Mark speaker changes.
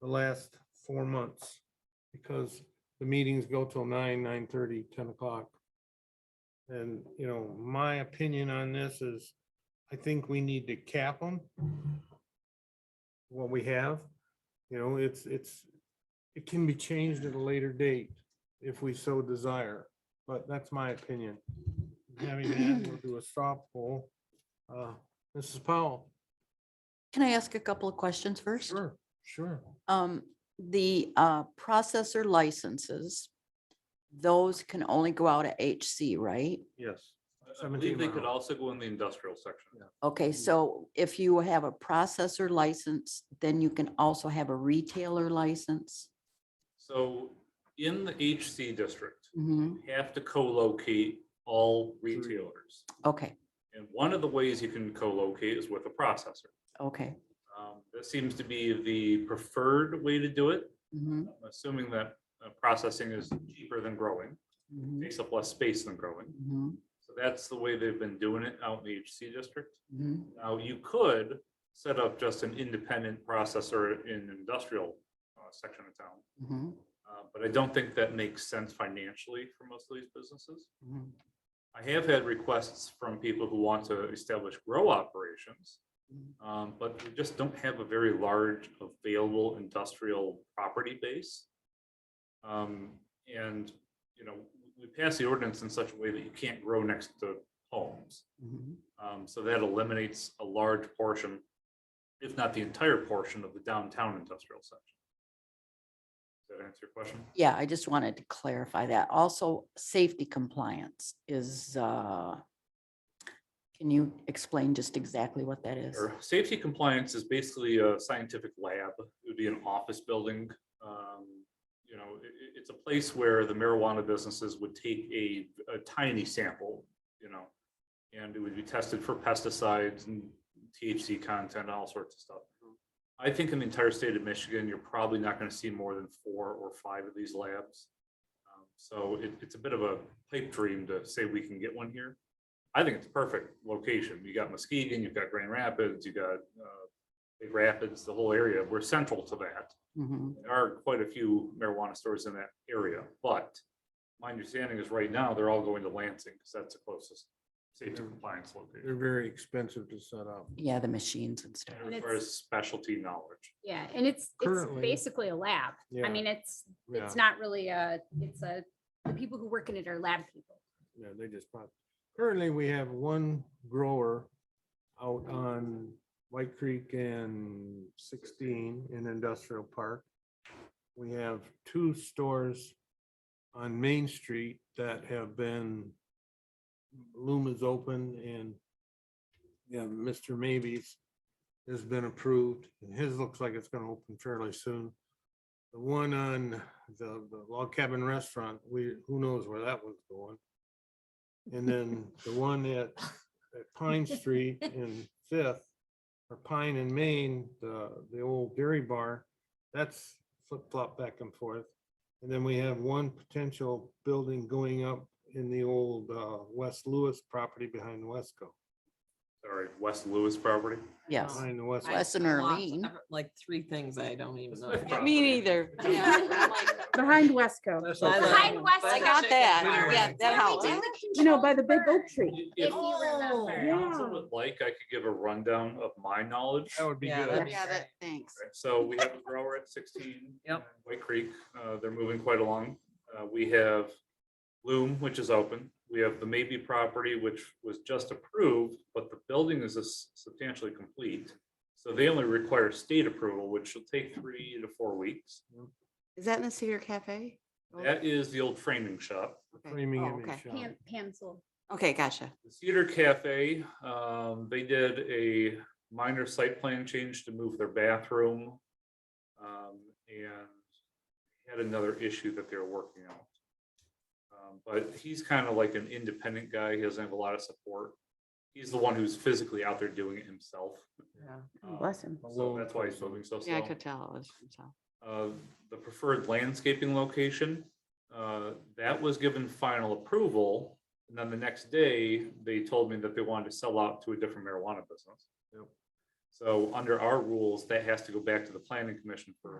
Speaker 1: the last four months. Because the meetings go till nine, nine thirty, ten o'clock. And, you know, my opinion on this is, I think we need to cap them. What we have, you know, it's, it's, it can be changed at a later date if we so desire, but that's my opinion. Having that, we'll do a stop poll. Uh, Mrs. Powell?
Speaker 2: Can I ask a couple of questions first?
Speaker 1: Sure, sure.
Speaker 2: Um, the uh, processor licenses, those can only go out at HC, right?
Speaker 1: Yes.
Speaker 3: I believe
Speaker 1: 17
Speaker 3: they could
Speaker 1: mile.
Speaker 3: also go in the industrial section.
Speaker 2: Okay, so if you have a processor license, then you can also have a retailer license.
Speaker 3: So in the HC district,
Speaker 2: Mhm,
Speaker 3: you have to co-locate all retailers.
Speaker 2: Okay,
Speaker 3: And one of the ways you can co-locate is with a processor.
Speaker 2: okay.
Speaker 3: Um, That seems to be the preferred way to do it,
Speaker 2: mhm,
Speaker 3: assuming that uh, processing is cheaper than growing,
Speaker 2: mhm,
Speaker 3: takes up less space than growing.
Speaker 2: mhm,
Speaker 3: So that's the way they've been doing it out in the HC district.
Speaker 2: mhm.
Speaker 3: Now, you could set up just an independent processor in industrial uh, section of town.
Speaker 2: mhm,
Speaker 3: Uh, But I don't think that makes sense financially for most of these businesses.
Speaker 2: mhm,
Speaker 3: I have had requests from people who want to establish grow operations. um, But we just don't have a very large available industrial property base. Um, And, you know, we pass the ordinance in such a way that you can't grow next to homes.
Speaker 2: mhm.
Speaker 3: Um, So that eliminates a large portion, if not the entire portion of the downtown industrial section. Does that answer your question?
Speaker 2: Yeah, I just wanted to clarify that. Also, safety compliance is, uh, can you explain just exactly what that is?
Speaker 3: Or safety compliance is basically a scientific lab. It would be an office building. Um, You know, i- i- it's a place where the marijuana businesses would take a, a tiny sample, you know, and it would be tested for pesticides and THC content, all sorts of stuff. I think in the entire state of Michigan, you're probably not going to see more than four or five of these labs. Um, So it, it's a bit of a pipe dream to say we can get one here. I think it's a perfect location. You got Muskegon, you've got Grand Rapids, you got uh, Big Rapids, the whole area. We're central to that.
Speaker 2: Mhm,
Speaker 3: There are quite a few marijuana stores in that area, but my understanding is right now, they're all going to Lansing because that's the closest safety
Speaker 1: Mhm.
Speaker 3: compliance location.
Speaker 1: They're very expensive to set up.
Speaker 2: Yeah, the machines and stuff.
Speaker 3: And
Speaker 4: And
Speaker 3: It
Speaker 4: it's-
Speaker 3: requires specialty knowledge.
Speaker 4: Yeah, and it's, it's
Speaker 1: Currently-
Speaker 4: basically a lab.
Speaker 1: Yeah.
Speaker 4: I mean, it's,
Speaker 1: Yeah,
Speaker 4: it's not really a, it's a, the people who work in it are lab people.
Speaker 1: yeah, they just pop. Currently, we have one grower out on White Creek and sixteen in Industrial Park. We have two stores on Main Street that have been Loom is open and yeah, Mr. Maybe's has been approved and his looks like it's gonna open fairly soon. The one on the, the log cabin restaurant, we, who knows where that one's going? And then the one at, at Pine Street and Fifth, or Pine and Main, the, the old dairy bar, that's flip flop back and forth. And then we have one potential building going up in the old, uh, West Lewis property behind Wesco,
Speaker 3: Sorry, West Lewis property.
Speaker 2: Yes.
Speaker 1: behind the West.
Speaker 2: I- Wes and
Speaker 5: lots of
Speaker 2: Arlene.
Speaker 5: different- Like three things I don't even
Speaker 3: It's
Speaker 5: know.
Speaker 3: my
Speaker 5: about.
Speaker 3: Me
Speaker 2: neither.
Speaker 6: Behind Wesco,
Speaker 5: I love
Speaker 4: Behind
Speaker 5: them.
Speaker 4: West- I
Speaker 5: Butter
Speaker 4: got
Speaker 5: chicken
Speaker 2: that.
Speaker 5: wiener
Speaker 2: Yeah,
Speaker 5: wings.
Speaker 2: that helps.
Speaker 6: you know, by the big oak tree.
Speaker 3: If
Speaker 4: If you remember.
Speaker 3: council
Speaker 6: Yeah.
Speaker 3: would like, I could give a rundown of my knowledge.
Speaker 1: That would be
Speaker 5: Yeah,
Speaker 1: good.
Speaker 5: that'd
Speaker 2: Yeah, that, thanks.
Speaker 3: Right, So we have a grower at sixteen.
Speaker 5: Yep.
Speaker 3: White Creek, uh, they're moving quite along. Uh, we have Loom, which is open. We have the Maybe property, which was just approved, but the building is s- substantially complete. So they only require state approval, which will take three to four weeks.
Speaker 2: Is that in the Cedar Cafe?
Speaker 3: That is the old framing shop.
Speaker 1: Framing
Speaker 2: Oh,
Speaker 1: image
Speaker 2: okay.
Speaker 1: shop.
Speaker 4: Hand, pencil.
Speaker 2: Okay, gotcha.
Speaker 3: The Cedar Cafe, um, they did a minor site plan change to move their bathroom. Um, and had another issue that they were working out. Um, but he's kind of like an independent guy. He doesn't have a lot of support. He's the one who's physically out there doing it himself.
Speaker 5: Yeah.
Speaker 3: Um,
Speaker 6: Bless him.
Speaker 3: So that's why he's moving so slow.
Speaker 2: Yeah, I could tell it was himself.
Speaker 3: Uh, the preferred landscaping location, uh, that was given final approval. And then the next day, they told me that they wanted to sell out to a different marijuana business. So under our rules, that has to go back to the planning commission for